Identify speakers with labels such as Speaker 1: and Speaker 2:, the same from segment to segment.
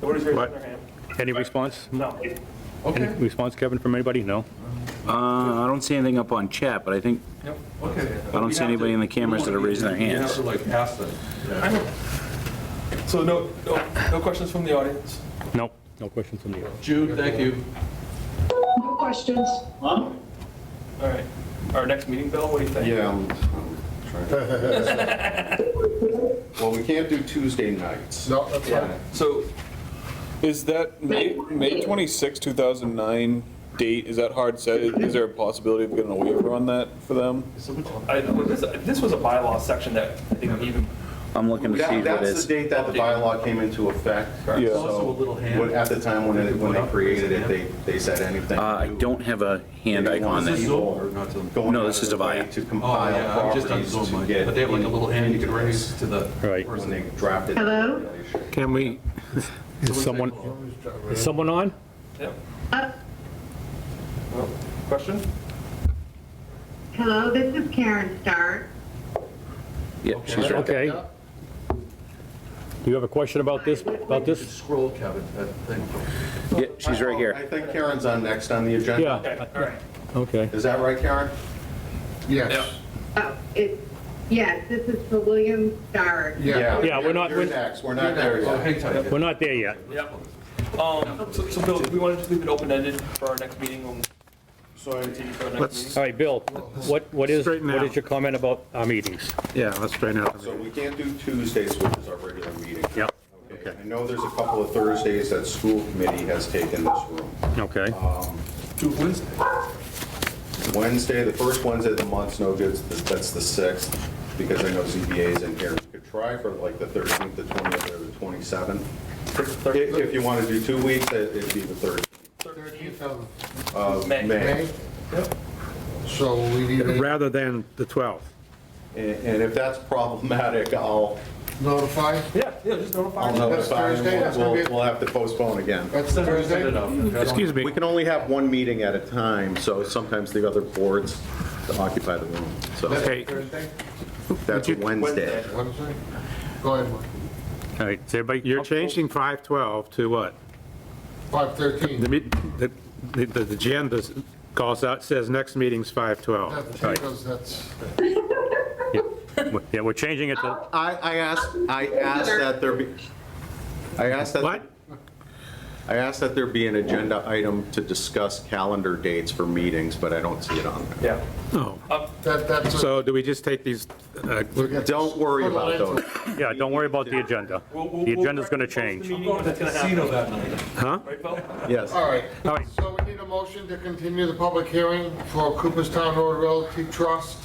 Speaker 1: Who's raising
Speaker 2: What?
Speaker 1: their hand?
Speaker 2: Any response?
Speaker 1: No.
Speaker 2: Any
Speaker 3: Okay,
Speaker 2: response, Kevin, from anybody? No?
Speaker 4: Uh, I don't see anything up on chat, but I think,
Speaker 3: yep, okay.
Speaker 4: I don't see anybody in the cameras that are raising their
Speaker 3: You have
Speaker 4: hands.
Speaker 3: to like ask them.
Speaker 1: I know.
Speaker 3: So no, no, no questions from the audience?
Speaker 2: No. No questions from you.
Speaker 3: Jude, thank you.
Speaker 5: No questions.
Speaker 1: All right. Our next meeting, Bill, what do you think?
Speaker 6: Yeah, I'm I'm trying. Well, we can't do Tuesday nights.
Speaker 3: No, that's fine. So
Speaker 7: Is that May, May 26, 2009 date, is that hard set? Is is there a possibility of getting a waiver on that for them?
Speaker 1: I- This this was a bylaw section that I think even,
Speaker 4: I'm looking to see
Speaker 6: That-
Speaker 4: what it
Speaker 6: That's
Speaker 4: is.
Speaker 6: the date that the bylaw came into effect.
Speaker 7: Yeah.
Speaker 6: So,
Speaker 3: Also a little hand.
Speaker 6: when- At the time when it, when they created it, they, they said anything.
Speaker 4: Uh, I don't have a hand icon
Speaker 6: This is
Speaker 4: there.
Speaker 6: Zoll. going
Speaker 4: No, this is
Speaker 6: out of their way
Speaker 4: Avaya.
Speaker 6: To
Speaker 3: Oh, yeah,
Speaker 6: compile
Speaker 3: I'm just on
Speaker 6: properties
Speaker 3: Zoom,
Speaker 6: to
Speaker 3: Mike.
Speaker 6: get.
Speaker 3: but they have like a little hand you can raise to the.
Speaker 2: Right.
Speaker 6: When they drafted. the
Speaker 5: Hello?
Speaker 6: regulation.
Speaker 2: Can we? Is someone, is someone on?
Speaker 1: yeah.
Speaker 5: Uh,
Speaker 1: Well, Question?
Speaker 5: Hello, this is Karen Starr.
Speaker 4: Yeah, she's right.
Speaker 2: Okay. Do you have a question about this, about this?
Speaker 3: Scroll, Kevin, that thing.
Speaker 4: Yeah, she's right
Speaker 6: I
Speaker 4: here.
Speaker 6: think Karen's on next on the agenda.
Speaker 2: Yeah,
Speaker 1: All right.
Speaker 2: okay.
Speaker 6: Is that right, Karen?
Speaker 8: Yes,
Speaker 5: Oh, it, yes, this is for William Starr.
Speaker 8: yeah.
Speaker 2: Yeah, we're not-
Speaker 6: You're
Speaker 2: we're-
Speaker 6: next, we're not there
Speaker 3: Oh,
Speaker 6: yet.
Speaker 3: hang tight.
Speaker 2: We're not there yet.
Speaker 1: Yep. Um, So, so Bill, do we want to just leave it open-ended for our next meeting? when- continue for our next
Speaker 8: Let's-
Speaker 1: meeting?
Speaker 2: All right, Bill, what, what is,
Speaker 8: Straighten
Speaker 2: what is
Speaker 8: out.
Speaker 2: your comment about our meetings?
Speaker 8: Yeah, let's straighten out.
Speaker 6: So we can't do Tuesdays, which is our regular meeting.
Speaker 2: Yep,
Speaker 6: Okay. I know there's a couple of Thursdays that school committee has taken this room.
Speaker 2: okay.
Speaker 3: To Wednesday.
Speaker 6: Wednesday, the first Wednesday of the month's no good, that's the 6th, because I know ZBA is in here. You could try for like the 13th, the 20th, or the 27th. If- If you want to do two weeks, it- it'd be the 13th
Speaker 8: Thirteenth of
Speaker 6: of
Speaker 1: Uh, May.
Speaker 6: May.
Speaker 8: May. So we need to
Speaker 9: rather than the 12th.
Speaker 6: And and if that's problematic, I'll
Speaker 8: notify.
Speaker 1: Yeah, yeah, just notify.
Speaker 6: I'll
Speaker 1: us.
Speaker 6: notify,
Speaker 8: Thursday, that's
Speaker 6: and
Speaker 8: gonna
Speaker 6: we'll,
Speaker 8: be-
Speaker 6: we'll have to postpone again.
Speaker 8: That's
Speaker 3: Thursday
Speaker 8: Oh, Thursday.
Speaker 3: enough.
Speaker 9: Excuse me,
Speaker 6: We can only have one meeting at a time, so sometimes the other boards occupy the room. So
Speaker 9: Okay.
Speaker 8: Thursday.
Speaker 6: that's Wednesday.
Speaker 8: Wednesday. Go ahead, Mike.
Speaker 2: All right, is everybody?
Speaker 9: you're
Speaker 2: comfortable?
Speaker 9: changing 512 to what?
Speaker 8: Five
Speaker 9: The,
Speaker 8: thirteen.
Speaker 9: meet- the, the the agenda calls out, says next meeting's 512.
Speaker 8: Because that's,
Speaker 2: Yeah, we're changing it to,
Speaker 6: I, I asked, I asked that there be, I asked that.
Speaker 9: What?
Speaker 6: I asked that there be an agenda item to discuss calendar dates for meetings, but I don't see it on there.
Speaker 1: Yeah.
Speaker 9: Oh.
Speaker 8: that, that's. a-
Speaker 9: So do we just take these, uh,
Speaker 8: we got-
Speaker 6: Don't worry
Speaker 8: Put a
Speaker 6: about
Speaker 8: line to
Speaker 6: those.
Speaker 8: it.
Speaker 2: yeah, don't worry about the agenda.
Speaker 1: We'll- we'll-
Speaker 2: The
Speaker 1: we'll
Speaker 2: agenda's going to
Speaker 1: post the
Speaker 2: change.
Speaker 1: meeting
Speaker 3: Going to the
Speaker 1: if it's gonna
Speaker 3: casino
Speaker 1: happen.
Speaker 3: that night.
Speaker 9: huh?
Speaker 1: Right, Bill?
Speaker 6: Yes.
Speaker 8: All right.
Speaker 2: All right.
Speaker 8: So we need a motion to continue the public hearing for Cooperstown Road Realty Trust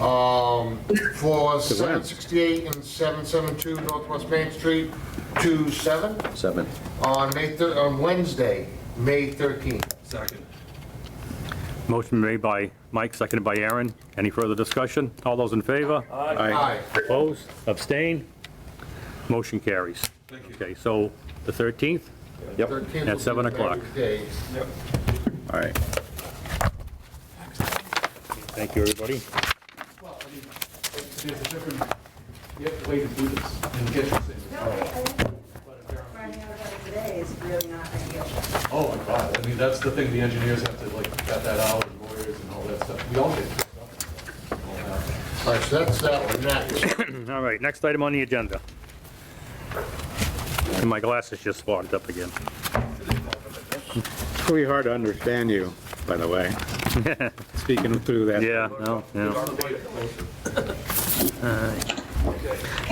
Speaker 8: um, for 768 and 772 Northwest Main Street to 7
Speaker 6: Seven.
Speaker 8: on May, thir- on Wednesday, May 13th.
Speaker 3: Second.
Speaker 2: Motion made by Mike, seconded by Aaron. Any further discussion? All those in favor?
Speaker 8: Aye.
Speaker 2: Opposed? Abstain? Motion carries.
Speaker 3: Thank you.
Speaker 2: Okay, so the 13th?
Speaker 8: 13th will
Speaker 2: At
Speaker 8: be the
Speaker 2: 7 o'clock.
Speaker 8: day.
Speaker 6: All right.
Speaker 2: Thank you, everybody.
Speaker 3: Well, I mean, there's a different, you have to wait to do this and get this in.
Speaker 10: Running out of it today is really not ideal.
Speaker 3: Oh, my God, I mean, that's the thing, the engineers have to like cut that out, and lawyers and all that stuff. We all get this stuff. All that.
Speaker 8: All right, so that's that one, next.
Speaker 2: All right, next item on the agenda. And my glasses just fogged up again.
Speaker 9: It's really hard to understand you, by the way. Speaking through that.
Speaker 2: Yeah, no, yeah.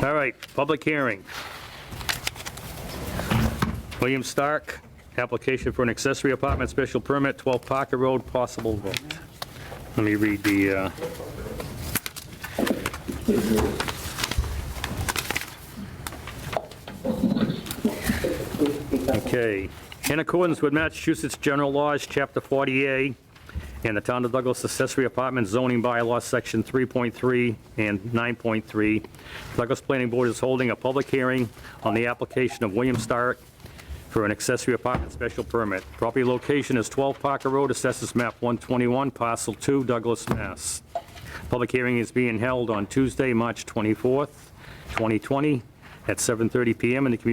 Speaker 2: All right, public hearing. William Stark, application for an accessory apartment special permit, 12 Parker Road, possible vote. Let me read the, uh, Okay. In accordance with Massachusetts General Laws, Chapter 48, and the Town of Douglas accessory apartment zoning bylaw, Section 3.3 and 9.3, Douglas Planning Board is holding a public hearing on the application of William Stark for an accessory apartment special permit. Property location is 12 Parker Road, Assessors Map 121, Parcel 2, Douglas, Mass. Public hearing is being held on Tuesday, March 24th, 2020, at 7:30 PM in the Community